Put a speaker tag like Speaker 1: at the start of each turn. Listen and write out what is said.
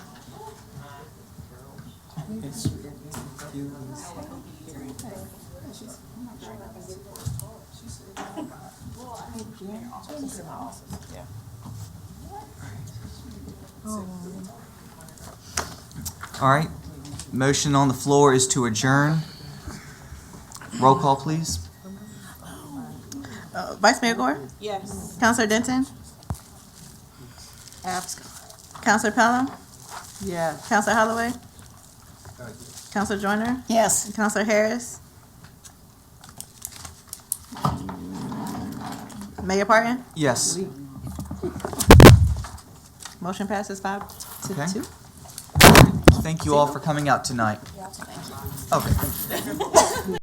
Speaker 1: It's, it's humans.
Speaker 2: Yeah.
Speaker 3: All right. Motion on the floor is to adjourn. Roll call, please.
Speaker 4: Uh, Vice Mayor Gore?
Speaker 2: Yes.
Speaker 4: Counselor Denton? Counselor Pelham?
Speaker 2: Yes.
Speaker 4: Counselor Holloway? Counselor Joyner?
Speaker 2: Yes.
Speaker 4: Counselor Harris? Mayor Parton?
Speaker 3: Yes.
Speaker 4: Motion passes five
Speaker 3: Okay.
Speaker 4: to two.
Speaker 3: Thank you all for coming out tonight. Okay.